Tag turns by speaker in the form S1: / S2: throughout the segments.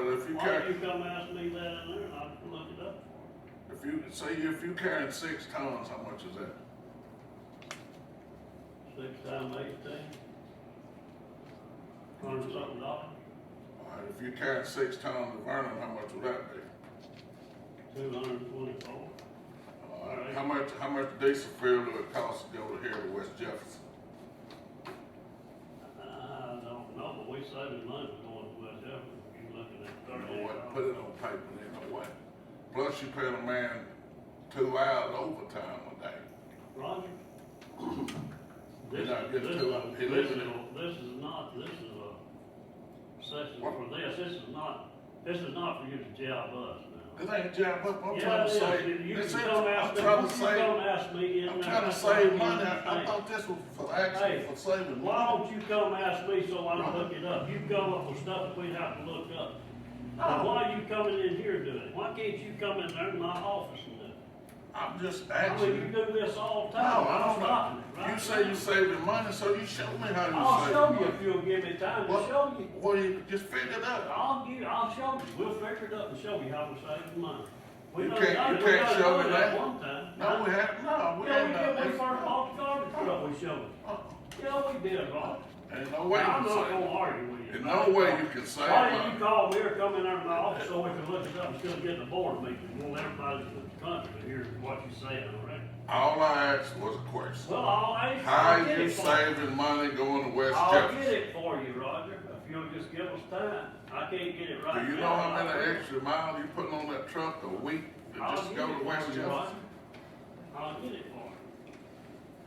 S1: Why don't
S2: carry,
S1: you come ask me that in there, and I can look it up for you.
S2: if you, say if you carrying six tons, how much is that?
S1: Six times eighteen. Hundred something dollars,
S2: All right, if you carrying six tons of Vernon, how much would that be?
S1: two hundred and twenty-four.
S2: All right, How much, how much diesel fuel would it cost to go to here to West Jefferson?
S1: I don't know, but we saving money going to West Jefferson, you looking at
S2: You know
S1: thirty-eight
S2: what, put it
S1: dollars.
S2: on paper, you know what? Plus you paying a man two hours overtime a day.
S1: Roger?
S2: You're
S1: This,
S2: not
S1: is-
S2: getting
S1: this,
S2: to it. He
S1: is-
S2: lives
S1: this is,
S2: in
S1: this is not, this is a session
S2: What?
S1: for this, this is not, this is not for you to jab us now.
S2: This ain't jab up, I'm
S1: Yeah,
S2: trying
S1: it
S2: to
S1: is.
S2: save,
S1: You
S2: this
S1: can
S2: ain't,
S1: come ask
S2: I'm
S1: me-
S2: trying
S1: you
S2: to
S1: can
S2: save,
S1: Come ask me in
S2: I'm
S1: there.
S2: trying to
S1: That's
S2: save
S1: what
S2: money,
S1: you
S2: I I
S1: think.
S2: thought this was for actually
S1: Hey,
S2: for saving
S1: Why
S2: money.
S1: don't you come ask me so I can look it up? You come up with stuff that we have to look up. Now, why are you coming in here doing it? Why can't you come in there in my office and do it?
S2: I'm just
S1: I mean, you
S2: asking.
S1: do this all the
S2: No,
S1: time.
S2: I
S1: I'm
S2: don't know.
S1: stopping it, right?
S2: You say you saving money, so you show me how
S1: I'll
S2: you
S1: Oh, show
S2: saving
S1: you
S2: money.
S1: if you'll give me time to
S2: What-
S1: show you.
S2: What, do you, just figure it out.
S1: I'll give, I'll show you. We'll figure it up and show you how we save money. We
S2: You
S1: done
S2: can't-
S1: done
S2: you
S1: it. We
S2: can't
S1: done
S2: show
S1: done
S2: me
S1: it
S2: that.
S1: One time.
S2: No, we have, no, we
S1: Yeah, we
S2: ain't
S1: did,
S2: done
S1: when we
S2: this.
S1: first bought the garbage truck, we showed it.
S2: Uh-uh.
S1: Yeah, we did, Rob.
S2: Ain't no way you
S1: I'm
S2: can
S1: not
S2: save.
S1: gonna argue with you.
S2: There's no way you can save
S1: Why didn't
S2: money.
S1: you call me or come in there to my office so we can look it up and still get the board meeting? Want everybody in the country to hear what you saying, all right?
S2: All I asked was a question.
S1: Well, I'll ask,
S2: How
S1: I'll get
S2: you
S1: it for you.
S2: saving money going to West
S1: I'll get
S2: Jefferson?
S1: it for you, Roger, if you'll just give us time. I can't get it right
S2: Do
S1: now.
S2: you know how many
S1: Roger.
S2: extra miles you putting on that truck a week to
S1: I'll
S2: just
S1: get
S2: go
S1: it
S2: to
S1: for
S2: West
S1: you, Roger.
S2: Jefferson?
S1: I'll get it for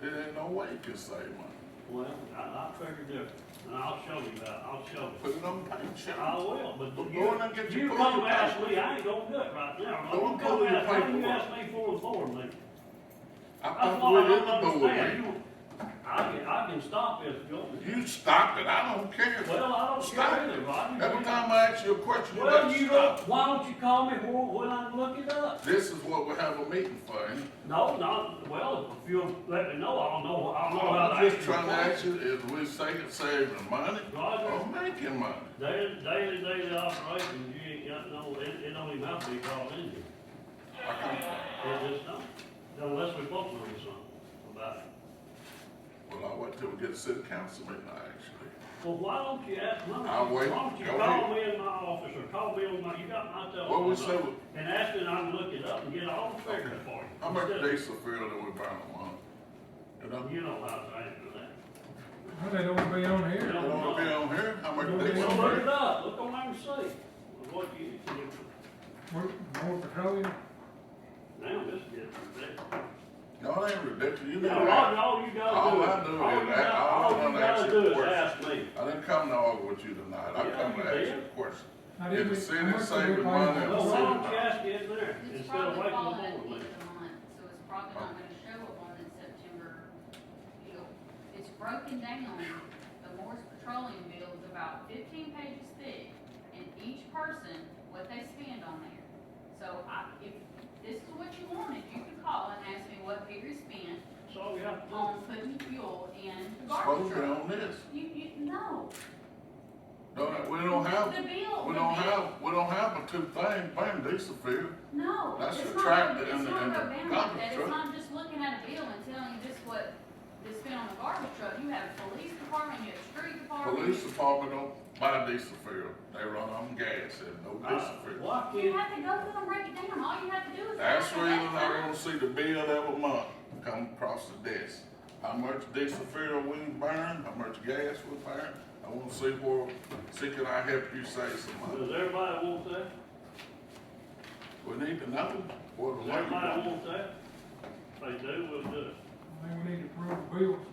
S2: There ain't no way you can save money.
S1: you. Well, I, I figured it, and I'll show you that, I'll show you.
S2: Put it on paper,
S1: I
S2: show
S1: will, but
S2: Go
S1: you,
S2: in and get your
S1: you
S2: food.
S1: come ask me, I ain't gonna do it right now.
S2: Go
S1: You
S2: and
S1: come
S2: pull your
S1: ask, why you
S2: paperwork.
S1: ask me for the board meeting?
S2: I
S1: That's
S2: thought
S1: what
S2: we
S1: I
S2: didn't
S1: don't
S2: do
S1: understand.
S2: it.
S1: You- I can, I can stop this, Joe.
S2: You stopped it, I don't care.
S1: Well, I don't
S2: Stop
S1: care
S2: it.
S1: either, Rodney.
S2: Every time I ask you a question, you
S1: Well,
S2: gotta
S1: you
S2: stop.
S1: don't, why don't you call me when, when I look it up?
S2: This is what we have a meeting for, ain't it?
S1: No, not, well, if you'll let me know, I'll know, I'll know how to
S2: I'm
S1: ask
S2: just
S1: you.
S2: trying to ask you, is we saving, saving money or
S1: Roger,
S2: making money?
S1: daily, daily, daily operations, you ain't got no, it, it don't even have to be called in here.
S2: I can't,
S1: It just don't, unless we both know something about it.
S2: well, I wait till we get to city council meeting, I actually.
S1: Well, why don't you ask, why
S2: I'll
S1: don't
S2: wait.
S1: you, why don't you
S2: Go
S1: call me in my office or call me on my, you got my telephone.
S2: Well, we say
S1: number,
S2: we-
S1: And ask me and I can look it up and get all the figures for you.
S2: How much
S1: Instead of-
S2: diesel fuel do we burn a month? You know,
S1: You know how to answer that.
S3: Well, they don't be on
S1: You
S3: here.
S2: you
S1: don't
S2: wanna be
S1: know.
S2: on here, how much
S3: Well,
S2: diesel?
S1: Well, look it
S2: fuel?
S1: up, look on there and see what you,
S3: More, more petroleum.
S1: now this is ridiculous.
S2: Y'all ain't ridiculous, you
S1: Now,
S2: know
S1: Roger,
S2: that.
S1: all
S2: All
S1: you gotta do
S2: I do is
S1: is, all you
S2: ask-
S1: gotta,
S2: all
S1: all
S2: I
S1: you
S2: wanna ask
S1: gotta
S2: you a
S1: do is
S2: question.
S1: ask me.
S2: I didn't come to argue with you tonight, I
S1: Yeah,
S2: come
S1: you
S2: to ask you
S1: did.
S2: a question.
S3: Now,
S2: Is
S3: did
S2: the
S3: we-
S2: city
S3: how much did we
S2: saving
S3: pay?
S2: money?
S1: Well, why don't you ask it in there
S4: It's
S1: instead of
S4: probably Um,
S1: waiting
S4: fall
S1: on the board meeting?
S4: at the end of the month, so it's probably not gonna show up on the September bill. It's broken down, the Morris Petroleum bill is about fifteen pages thick, and each person, what they spend on there. So I, if this is what you wanted, you could call and ask me what Peter spent
S1: That's all we have to do.
S4: on putting fuel in the
S2: Supposed
S4: garbage
S2: to be
S4: truck.
S2: on this,
S4: You, you, no,
S2: don't, we don't
S4: the
S2: have,
S4: bill,
S2: we
S4: the
S2: don't
S4: bill.
S2: have, we don't have a two thing, buying diesel fuel.
S4: No,
S2: That's
S4: it's
S2: the
S4: not,
S2: tractor
S4: it's
S2: and the-
S4: not
S2: and the
S4: broke down
S2: garbage
S4: like that,
S2: truck.
S4: it's not just looking at a bill and telling you this what, this spent on the garbage truck, you have police department, you have street department.
S2: Police department don't buy diesel fuel, they run on gas and no
S1: I-
S2: diesel fuel.
S1: Why
S4: You
S1: can't,
S4: have to go through and break it down, all you have to do is.
S2: That's the
S4: go through
S2: reason
S4: that
S2: I
S4: time.
S2: wanna see the bill every month come across the desk. How much diesel fuel we burn, how much gas we burn, I wanna see where, see can I help you save some money?
S1: does everybody want that?
S2: We need to know what the
S1: Does
S2: labor.
S1: everybody want that? If they do, we'll do it.
S3: I think we need to approve the bills.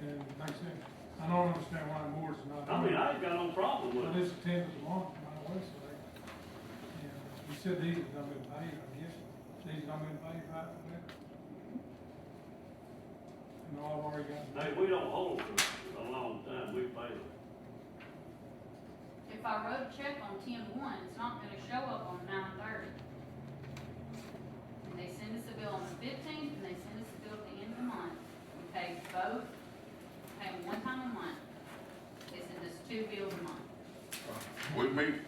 S3: And like I said, I don't understand why the board's not.
S1: I mean,
S3: doing it.
S1: I ain't got no problem
S3: Well,
S1: with it.
S3: this attendance is long, by the way, so they, yeah, you said these have not been paid, I guess, these have not been paid, right? And all I've already got.
S1: Hey, we don't hold for a long time, we pay them.
S4: If I wrote a check on ten one, it's not gonna show up on nine thirty. And they send us a bill on the fifteenth, and they send us a bill at the end of the month, we pay both, pay them one time a month, it's in this two bills a month.
S2: We meet